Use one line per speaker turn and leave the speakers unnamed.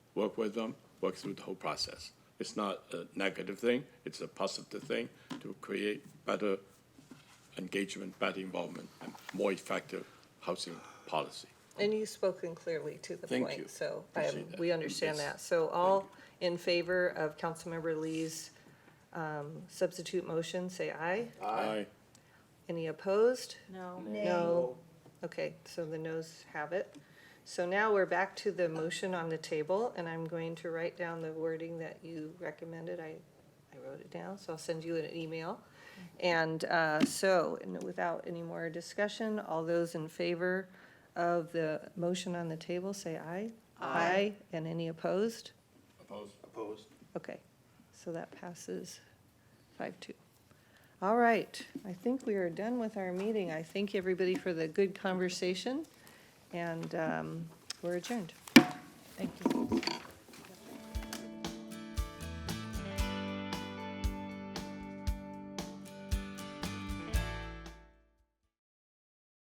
work with them, work through the whole process. It's not a negative thing, it's a positive thing to create better engagement, better involvement, and more effective housing policy.
And you've spoken clearly to the
Thank you.
point, so um,
Appreciate that.
we understand
Yes.
that. So all in favor of Councilmember Lee's um, substitute motion, say aye.
Aye.
Any opposed?
No.
No. Okay, so the noes have it. So now we're back to the motion on the table, and I'm going to write down the wording that you recommended. I, I wrote it down, so I'll send you an email. And uh, so, and without any more discussion, all those in favor of the motion on the table, say aye. Aye. And any opposed?
Opposed?
Opposed?
Okay, so that passes five two. All right, I think we are done with our meeting. I thank everybody for the good conversation, and um, we're adjourned. Thank you.